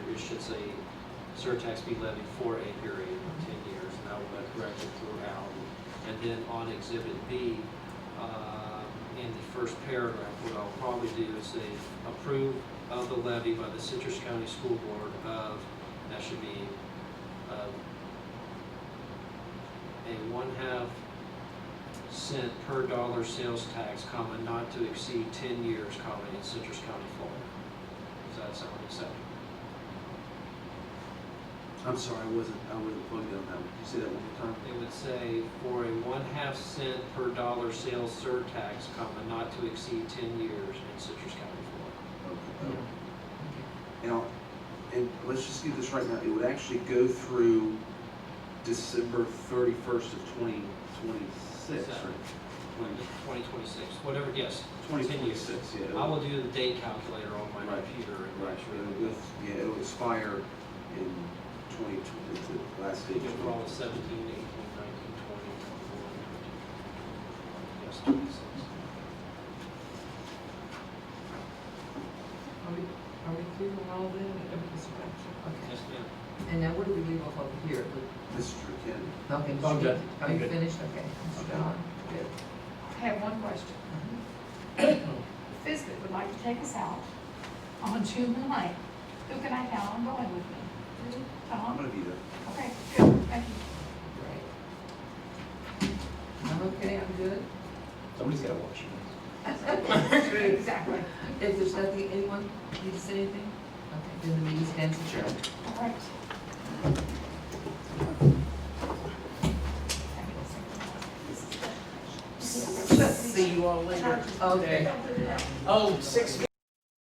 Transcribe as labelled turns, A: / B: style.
A: a surtax be levied for a period of 10 years, and I will have corrected throughout. And then on Exhibit B, uh, in the first paragraph, what I'll probably do is say, approve of the levy by the Citrus County School Board of, that should be uh, a one-half cent per dollar sales tax, comma, not to exceed 10 years, comma, in Citrus County, Florida. Does that sound acceptable?
B: I'm sorry, I wasn't, I wasn't plugged in on that one. Can you say that one more time?
A: It would say for a one-half cent per dollar sales surtax, comma, not to exceed 10 years in Citrus County, Florida.
B: Now, and let's just do this right now, it would actually go through December thirty-first of twenty twenty-six,
A: Seven.
B: right?
A: 2026, whatever, yes.
B: Twenty
A: 10 years.
B: twenty-six, yeah.
A: I
B: it'll-
A: will do the date calculator on my
B: Right.
A: computer and
B: Right,
A: make
B: sure, it'll,
A: sure
B: go- yeah, it'll expire in twenty twenty, the last day.
A: that
B: of
A: we get
B: 20.
A: all the 17, 18, 19, 20, 21, 22. Yes, 26.
C: Are we, are we through with all that, everything's correct?
A: Yes, ma'am.
C: Okay, and now what do we leave off over here? We-
B: Mr. Ken,
C: Okay,
D: I'm
C: Mr.
D: good.
C: Keith, are
D: I'm
C: you
D: good.
C: finished? Okay. Mr.
B: Okay.
C: John? Good.
E: I have one question. Fisbit would like to take us out on June the ninth. Who can I count on going with me?
B: I'm
E: Tom?
B: gonna be there.
E: Okay, good, thank you.
C: Great. I'm okay, I'm good.
D: Somebody's gotta watch you.
E: Exactly.
C: If there's nothing, anyone need to say anything? Okay, then the meeting stands adjourned.
E: All right. This is-
C: See you all later. Okay.
D: Oh, six